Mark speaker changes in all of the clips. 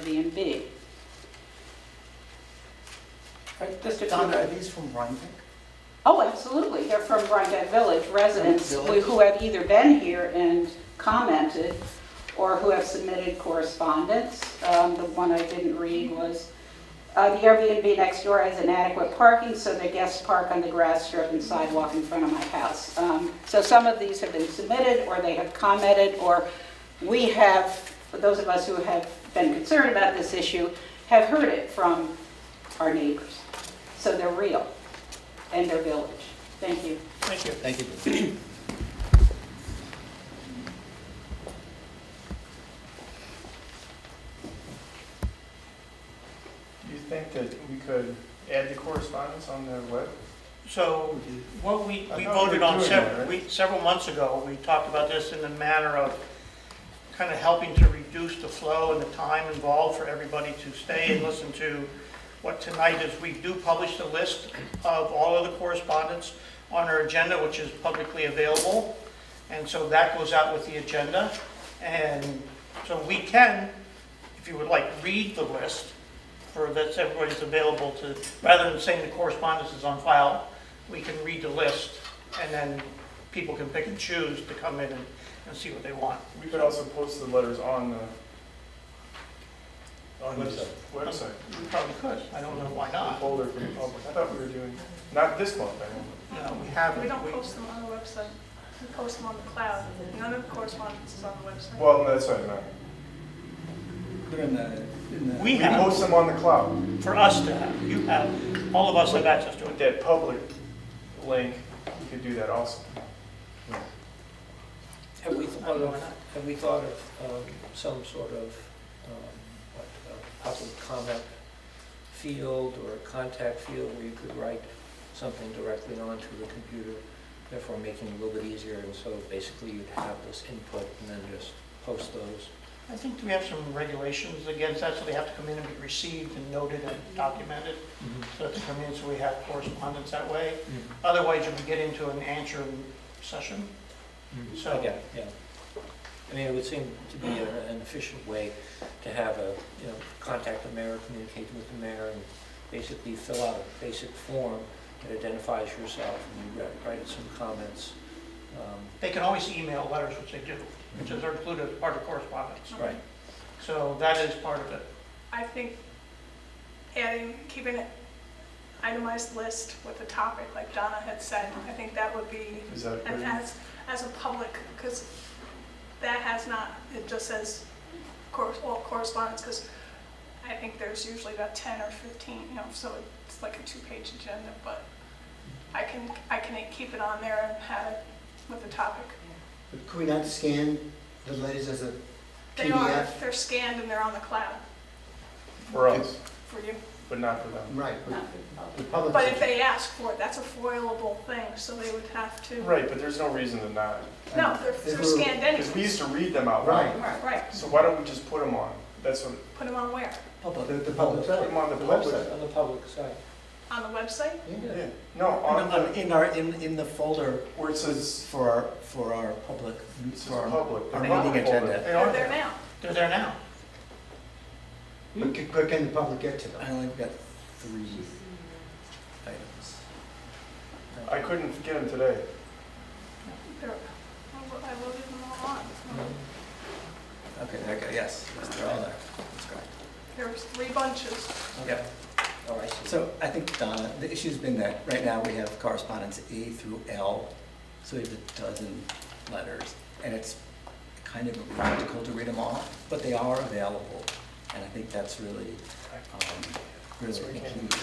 Speaker 1: Airbnb.
Speaker 2: Just a comment, are these from Rhinebeck?
Speaker 1: Oh, absolutely, they're from Rhinebeck Village residents
Speaker 2: Village.
Speaker 1: who who have either been here and commented or who have submitted correspondence. Um, The one I didn't read was, uh, "The Airbnb next door has inadequate parking, so their guests park on the grass strip and sidewalk in front of my house." Um, So some of these have been submitted, or they have commented, or we have, for those of us who have been concerned about this issue, have heard it from our neighbors. So they're real, and they're village. Thank you.
Speaker 3: Thank you.
Speaker 2: Thank you.
Speaker 3: Do you think that we could add the correspondence on the web?
Speaker 4: So what we,
Speaker 3: I
Speaker 4: we
Speaker 3: thought we
Speaker 4: voted
Speaker 3: were
Speaker 4: on
Speaker 3: doing
Speaker 4: several,
Speaker 3: that,
Speaker 4: we, several months ago, we talked about this in the manner of kind of helping to reduce the flow and the time involved for everybody to stay and listen to what tonight is. We do publish the list of all of the correspondence on our agenda, which is publicly available. And so that goes out with the agenda. And so we can, if you would like, read the list for, that's everybody's available to, rather than saying the correspondence is on file, we can read the list, and then people can pick and choose to come in and, and see what they want.
Speaker 3: We could also post the letters on the, on the
Speaker 2: Website.
Speaker 3: website.
Speaker 4: We probably could, I don't know why
Speaker 3: The
Speaker 4: not.
Speaker 3: folder for the public. I thought we were doing, not this month, I mean.
Speaker 4: No, we haven't.
Speaker 5: We don't post them on the website. We post them on the cloud. None of the correspondence is on the website.
Speaker 3: Well, no, that's what I meant.
Speaker 2: They're in the, in the.
Speaker 4: We
Speaker 3: We
Speaker 4: have,
Speaker 3: post them on the cloud
Speaker 4: for us to have, you have, all of us have access to
Speaker 3: with
Speaker 4: it.
Speaker 3: that public link. We could do that also.
Speaker 6: Have we
Speaker 4: I don't
Speaker 6: thought
Speaker 4: know why
Speaker 6: of,
Speaker 4: not.
Speaker 6: have we thought of um, some sort of, um, what, a public comment field or a contact field where you could write something directly onto the computer, therefore making it a little bit easier, and so basically you'd have this input and then just post those.
Speaker 4: I think we have some regulations against that, so they have to come in and be received and noted and documented. So that's come in, so we have correspondence that way. Otherwise, you would get into an answering session.
Speaker 6: So, yeah, yeah. I mean, it would seem to be a- an efficient way to have a, you know, contact the mayor, communicate with the mayor, and basically fill out a basic form that identifies yourself, and you write- write some comments. um,
Speaker 4: They can always email letters, which they do, which is included as part of correspondence.
Speaker 6: Right,
Speaker 4: So that is part of it.
Speaker 5: I think adding, keeping an itemized list with the topic, like Donna had said, I think that would be,
Speaker 3: Is that
Speaker 5: and
Speaker 3: good?
Speaker 5: as, as a public, because that has not, it just says cor- all correspondence, because I think there's usually about 10 or 15, you know, so it's like a two-page agenda, but I can, I can keep it on there and have it with the topic.
Speaker 7: But Could we not scan the letters as a
Speaker 5: They are,
Speaker 7: PDF?
Speaker 5: they're scanned and they're on the cloud
Speaker 3: For us,
Speaker 5: for you.
Speaker 3: but not for them.
Speaker 7: Right, but the public.
Speaker 5: But if they ask for it, that's a foilable thing, so they would have to,
Speaker 3: Right, but there's no reason to not.
Speaker 5: no, they're, they're scanned
Speaker 3: Because we
Speaker 5: anyway.
Speaker 3: used to read them out loud.
Speaker 7: Right.
Speaker 5: Right, right,
Speaker 3: So why don't we just put them on? That's what,
Speaker 5: put them on where?
Speaker 7: The, the public.
Speaker 3: put them on the
Speaker 6: the public,
Speaker 3: website.
Speaker 6: on the public side.
Speaker 5: On the website?
Speaker 3: Yeah. No, on the,
Speaker 6: In our, in, in the folder
Speaker 3: where it says
Speaker 6: for our, for our public,
Speaker 3: It says public.
Speaker 6: our
Speaker 3: They're on
Speaker 6: meeting
Speaker 3: the folder.
Speaker 6: agenda.
Speaker 3: They
Speaker 5: They're
Speaker 3: are
Speaker 5: there
Speaker 3: there.
Speaker 5: now.
Speaker 4: They're there now.
Speaker 7: But can, but can the public get to them?
Speaker 6: only got three items.
Speaker 3: I couldn't get them today.
Speaker 5: They're, I lo- I loaded them all on.
Speaker 6: Okay, okay, yes, they're all there, that's correct.
Speaker 5: There was three bunches.
Speaker 6: Yep. Oh, I see.
Speaker 8: So I think, Donna, the issue's been that right now we have correspondence A through L, so we have a dozen letters, and it's kind of impractical to read them all, but they are available. And I think that's really, um, really the key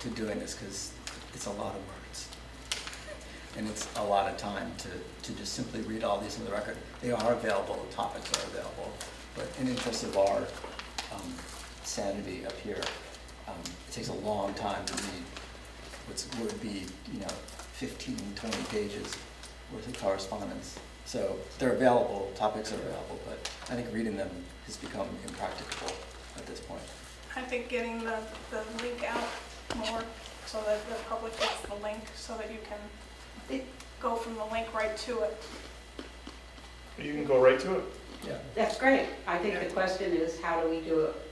Speaker 8: to doing this, because it's a lot of words. And it's a lot of time to, to just simply read all these in the record. They are available, the topics are available, but in interest of our um, sanity up here, um, it takes a long time to read what's, what would be, you know, 15, 20 pages worth of correspondence. So they're available, topics are available, but I think reading them has become impracticable at this point.
Speaker 5: I think getting the, the link out more so that the public gets the link, so that you can go from the link right to it.
Speaker 3: You can go right to it.
Speaker 1: That's great. I think the question is, how do we do it